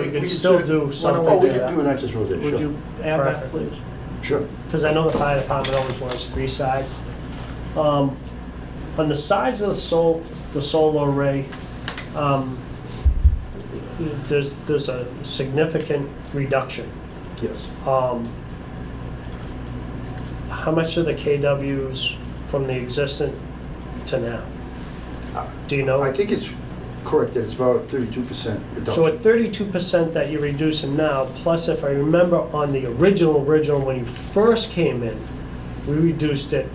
we could still do something Oh, we to could do that. an access road there, Would sure. you add that, please? Sure. Because I know the fire department always wants three sides. Um, On the size of the sol, the solar array, um, there's, there's a significant reduction. Yes. Um, How much are the KWs from the existent to now? Do you know? Uh, I think it's correct that it's about thirty-two percent So at reduction. thirty-two percent that you're reducing now, plus if I remember on the original, original, when you first came in, we reduced it,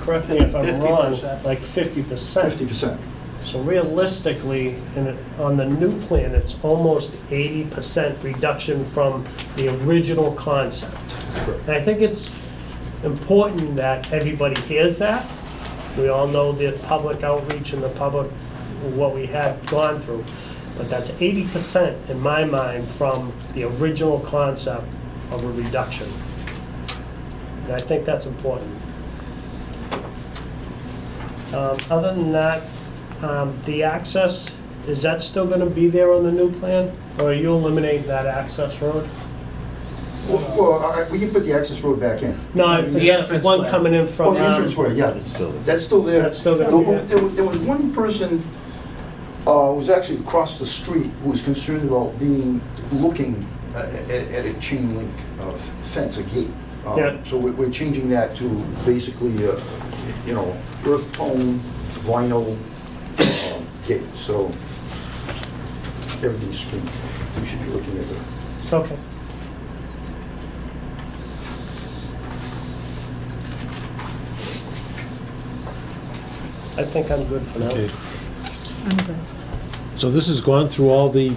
correct me if I'm wrong, 50%. like fifty percent. Fifty percent. So realistically, in, it- on the new plan, it's almost eighty percent reduction from the original concept. And I think it's important that everybody hears that. We all know the public outreach and the public, what we had gone through. But that's eighty percent in my mind from the original concept of a reduction. And I think that's important. Um, Other than that, um, the access, is that still gonna be there on the new plan? Or are you eliminating that access road? Well, I- I- we can put the access road back in. No, The the entrance one way. coming in Oh, from. the um, entrance way, yeah. It's still there. That's still there. That's still there. There- There was- there was one person, uh, who was actually across the street, who was concerned about being, looking uh, at, at a chain link uh, fence, a gate. Um, Yeah. So we're, we're changing that to basically, uh, you know, earth tone vinyl uh, gate, so everything's screened. We should be looking at the Okay. I think I'm good for now. Okay. So this has gone through all the,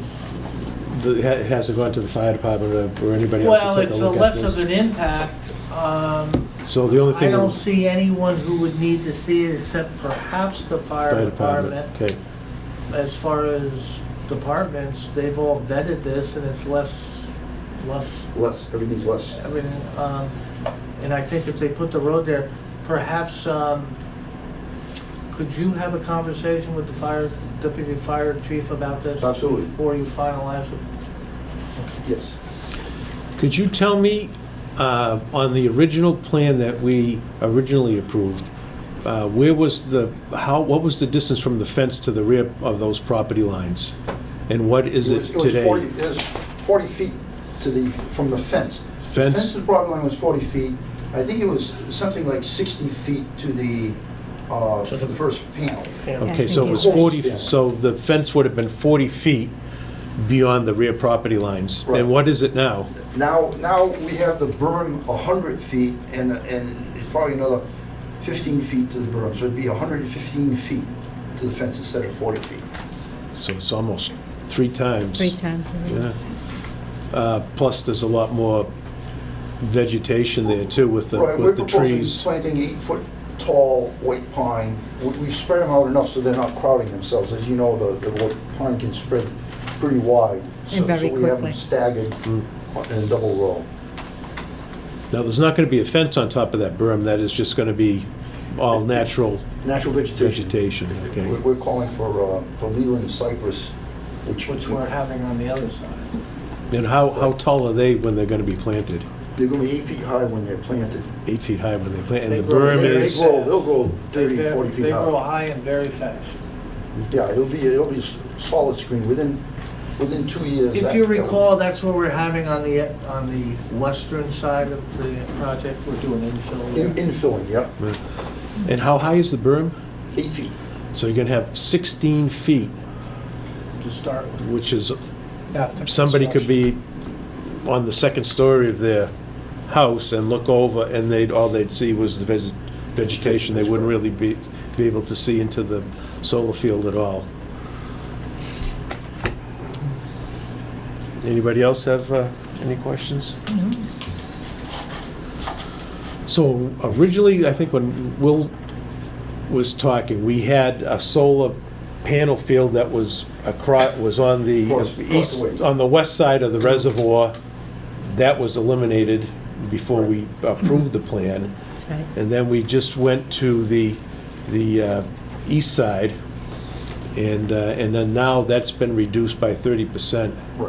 the- ha- has it gone to the fire department or or anybody else Well, to take a it's a look at less of this? an impact. Um, So the only I thing. don't see anyone who would need to see it except perhaps the fire department. Okay, As far as departments, they've all vetted this and it's less, less, less, everything's less. I mean, um, and I think if they put the road there, perhaps, um, could you have a conversation with the fire, deputy fire chief about this? Absolutely. Before you finalize it? Yes. could you tell me, uh, on the original plan that we originally approved, uh, where was the, how, what was the distance from the fence to the rear of those property lines? And what is was- it was 40 today? It was 40 feet to the, from the fence. The Fence? fence's property line was 40 feet. I think it was something like 60 feet to the, uh, to the first panel. Yeah. Okay, so it was Yeah, thank you. 40, so the fence would have been 40 feet beyond the rear property lines. Right. And what is it now? Now, now we have the berm 100 feet and, and it's probably another 15 feet to the berm. So it'd be 115 feet to the fence instead of 40 feet. So it's almost three times. Three times. Yeah. Uh, Plus, there's a lot more vegetation there too with the, Right, we're with the proposing trees. planting eight-foot-tall white pine. We- We spread them out enough so they're not crowding themselves. As you know, the, the white pine can spread pretty wide. so- And very So we have them quickly. staggered Mm. in double row. Now, there's not going to be a fence on top of that berm, that is just going to be all natural Natural vegetation. vegetation, We're okay? we're calling for uh, the Leland cypress, which, Which we're they're having on the other side. And how, how tall are they when they're going to be planted? gonna be eight feet high when they're planted. Eight feet high when they plant, They and the grow- berm They- is, They grow, they'll grow They 30, ver- 40 feet They grow high. high and very fast. Yeah, it'll be, it'll be s- solid screen within, within two years. If that- you that will- recall, that's what we're having on the, on the western side of the project. We're doing infill In- there. Infilling, yep, and how high is the berm? eight feet. So you're going to have 16 feet, to start with. which is somebody could be on the second story of their house and look over, and they'd, all they'd see was the ves- vegetation. They wouldn't really be, be able to see into the solar field at all. Anybody else have uh, any questions? So originally, I think when Will was talking, we had a solar panel field that was across, was on the Across- across east, the way. on the west side of the reservoir. That was eliminated before we approved the plan. That's right. And then we just went to the, the uh, east side. And, uh, and then now that's been reduced by 30%. Right.